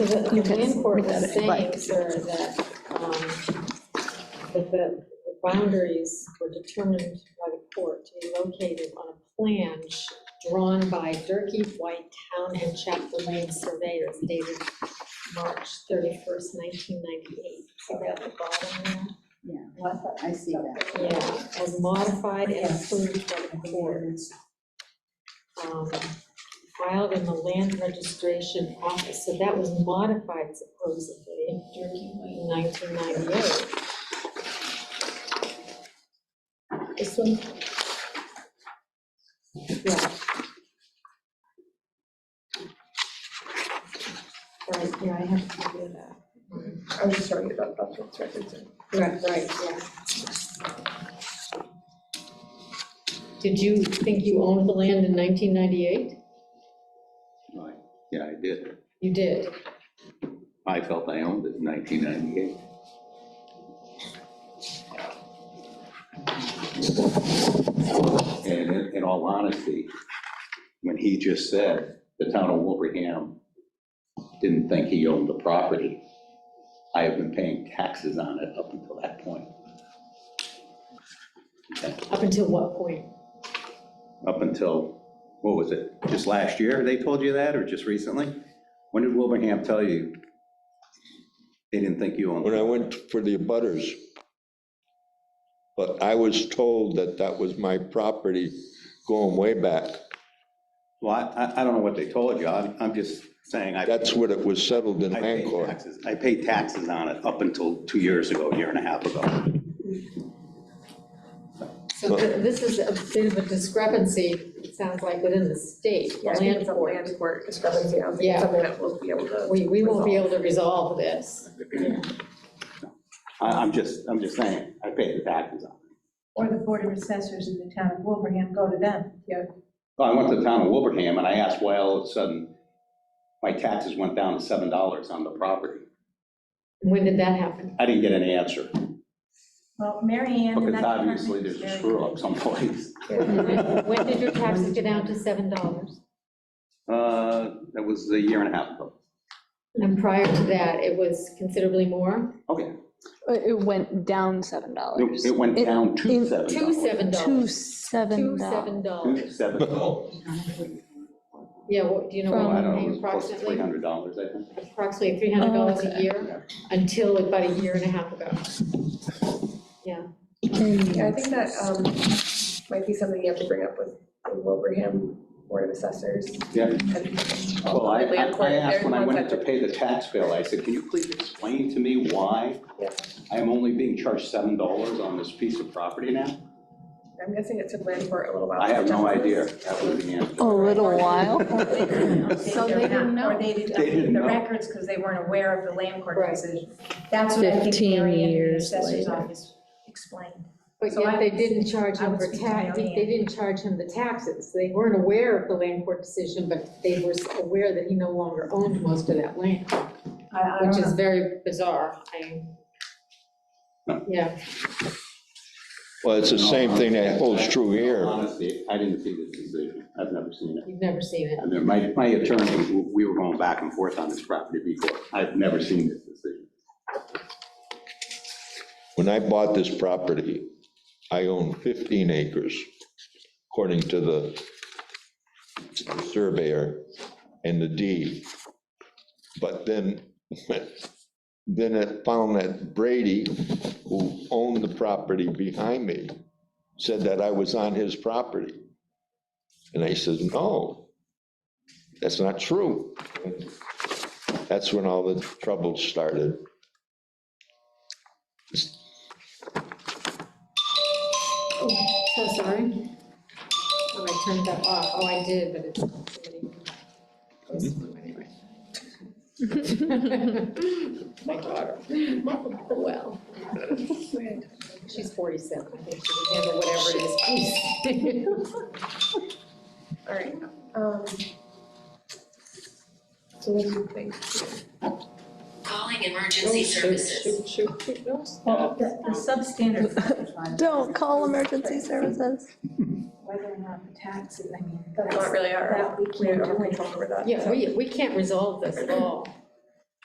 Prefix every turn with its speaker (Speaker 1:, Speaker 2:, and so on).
Speaker 1: The
Speaker 2: You
Speaker 1: the
Speaker 2: can
Speaker 1: land court
Speaker 2: look at it
Speaker 1: was
Speaker 2: if you'd
Speaker 1: saying,
Speaker 2: like.
Speaker 1: sir, that, um, that the the boundaries were determined by the court to be located on a plan sh- drawn by Durkey, White, Town, and Chapel Lane surveyors dated March thirty-first, nineteen ninety-eight. So that the bottom
Speaker 3: Yeah, Oh, I see that.
Speaker 1: there, yeah, as modified and approved by the court. um, filed in the land registration office, so that was modified supposedly in 1998.
Speaker 3: This one?
Speaker 1: Yeah. Right, yeah, I have to do that.
Speaker 4: I was just talking about public records.
Speaker 1: Correct, right, yeah. Did you think you owned the land in 1998?
Speaker 5: Right. Yeah, I did.
Speaker 1: You did.
Speaker 5: I felt I owned it in 1998. And in- in all honesty, when he just said the town of Wilbraham didn't think he owned the property, I have been paying taxes on it up until that point.
Speaker 1: Up until what point?
Speaker 5: Up until, what was it, just last year they told you that, or just recently? When did Wilbraham tell you they didn't think you owned?
Speaker 6: when I went for the abutters. But I was told that that was my property going way back.
Speaker 5: Well, I- I, I don't know what they told you, I'm, I'm just saying I.
Speaker 6: That's what it was settled in
Speaker 5: I paid
Speaker 6: Hancock.
Speaker 5: taxes- I paid taxes on it up until two years ago, a year and a half ago.
Speaker 1: So th- this is a bit of a discrepancy, it sounds like, within the state, the
Speaker 4: Yeah, I think
Speaker 1: land
Speaker 4: it's a
Speaker 1: court.
Speaker 4: land court discrepancy, I don't think it's
Speaker 1: Yeah.
Speaker 4: something that we'll be able to.
Speaker 1: We, we won't be able to resolve this.
Speaker 5: I, I'm just, I'm just saying, I paid the taxes on it.
Speaker 7: Or the Board of Assessors in the town of Wilbraham, go to them.
Speaker 5: So I went to the town of Wilbraham and I asked why all of a sudden my taxes went down to seven dollars on the property.
Speaker 1: When did that happen?
Speaker 5: I didn't get an answer,
Speaker 7: Well, Mary Ann. in
Speaker 5: because
Speaker 7: that department
Speaker 5: obviously
Speaker 7: is
Speaker 5: there's a
Speaker 7: very
Speaker 5: screw
Speaker 7: good.
Speaker 5: up someplace.
Speaker 1: When when did your taxes go down to seven dollars?
Speaker 5: Uh, That was a year and a half ago.
Speaker 1: And prior to that, it was considerably more,
Speaker 5: Okay,
Speaker 2: It it went down seven dollars.
Speaker 5: it it went down to
Speaker 2: in-
Speaker 5: seven dollars.
Speaker 1: two seven
Speaker 2: Two
Speaker 1: dollars.
Speaker 2: seven dollars.
Speaker 5: Two
Speaker 1: dollars.
Speaker 5: seven dollars.
Speaker 1: Yeah, what, do you know,
Speaker 5: I
Speaker 1: what you
Speaker 5: don't know, it
Speaker 1: pay
Speaker 5: was close to
Speaker 1: approximately,
Speaker 5: three hundred dollars, I think.
Speaker 1: approximately three hundred dollars
Speaker 2: Oh,
Speaker 1: a
Speaker 2: okay.
Speaker 1: year, until about a year and a half ago. Yeah,
Speaker 4: Yeah, I think that um, might be something you have to bring up with the Wilbraham Board of Assessors.
Speaker 5: Yeah.
Speaker 4: And
Speaker 5: Well, I,
Speaker 4: ultimately,
Speaker 5: I
Speaker 4: of course,
Speaker 5: I asked
Speaker 4: they're
Speaker 5: when
Speaker 4: the
Speaker 5: I
Speaker 4: ones
Speaker 5: went in to
Speaker 4: that-
Speaker 5: pay the tax bill, I said, can you please explain to me why
Speaker 4: Yeah.
Speaker 5: I am only being charged seven dollars on this piece of property now?
Speaker 4: I'm guessing it took land court a little while.
Speaker 5: I
Speaker 4: to
Speaker 5: have no
Speaker 4: adjust
Speaker 5: idea.
Speaker 4: this.
Speaker 5: That was the answer.
Speaker 2: A little while.
Speaker 7: They didn't know.
Speaker 3: So they didn't know.
Speaker 7: Or they didn't
Speaker 5: They didn't
Speaker 7: update the
Speaker 5: know.
Speaker 7: records because they weren't aware of the land court
Speaker 1: Right.
Speaker 7: decision. That's what I think
Speaker 2: 15
Speaker 7: Mary Ann in the
Speaker 2: years
Speaker 7: Assessor's
Speaker 2: later.
Speaker 7: office explained.
Speaker 1: but
Speaker 7: So
Speaker 1: yet
Speaker 7: I
Speaker 1: they
Speaker 7: would-
Speaker 1: didn't charge
Speaker 7: I
Speaker 1: him
Speaker 7: would
Speaker 1: for
Speaker 7: speak to
Speaker 1: tax,
Speaker 7: Mary Ann.
Speaker 1: they didn't charge him the taxes, they weren't aware of the land court decision, but they were aware that he no longer owned most of that land.
Speaker 7: I, I
Speaker 1: which
Speaker 7: don't
Speaker 1: is
Speaker 7: know.
Speaker 1: very bizarre, I, yeah,
Speaker 6: Well, it's the same thing that holds true here.
Speaker 5: Honestly, I didn't see this decision. I've never seen it.
Speaker 1: you've never seen it.
Speaker 5: I mean, my, my attorney, we were going back and forth on this property before. I've never seen this decision.
Speaker 6: When I bought this property, I owned 15 acres, according to the surveyor and the deed. But then, then it found that Brady, who owned the property behind me, said that I was on his property. And I said, no, that's not true. That's when all the trouble started.
Speaker 1: So sorry. Oh, I turned that off, oh, I did, but it's somebody. it's fine anyway. My daughter, well, she's forty-seven, I think she can handle whatever it is.
Speaker 4: All right. um, So what do you think?
Speaker 8: Calling emergency services.
Speaker 1: Shoot, shoot, shoot, no,
Speaker 7: Well,
Speaker 1: stop.
Speaker 7: The the substandard frontage line.
Speaker 2: Don't call emergency services.
Speaker 7: Whether or not the tax, is- I mean.
Speaker 4: That's not really our,
Speaker 7: That we
Speaker 4: we
Speaker 7: can't
Speaker 4: have
Speaker 7: do
Speaker 4: no
Speaker 7: anything.
Speaker 4: control over that.
Speaker 1: Yeah, we, we can't resolve this at all.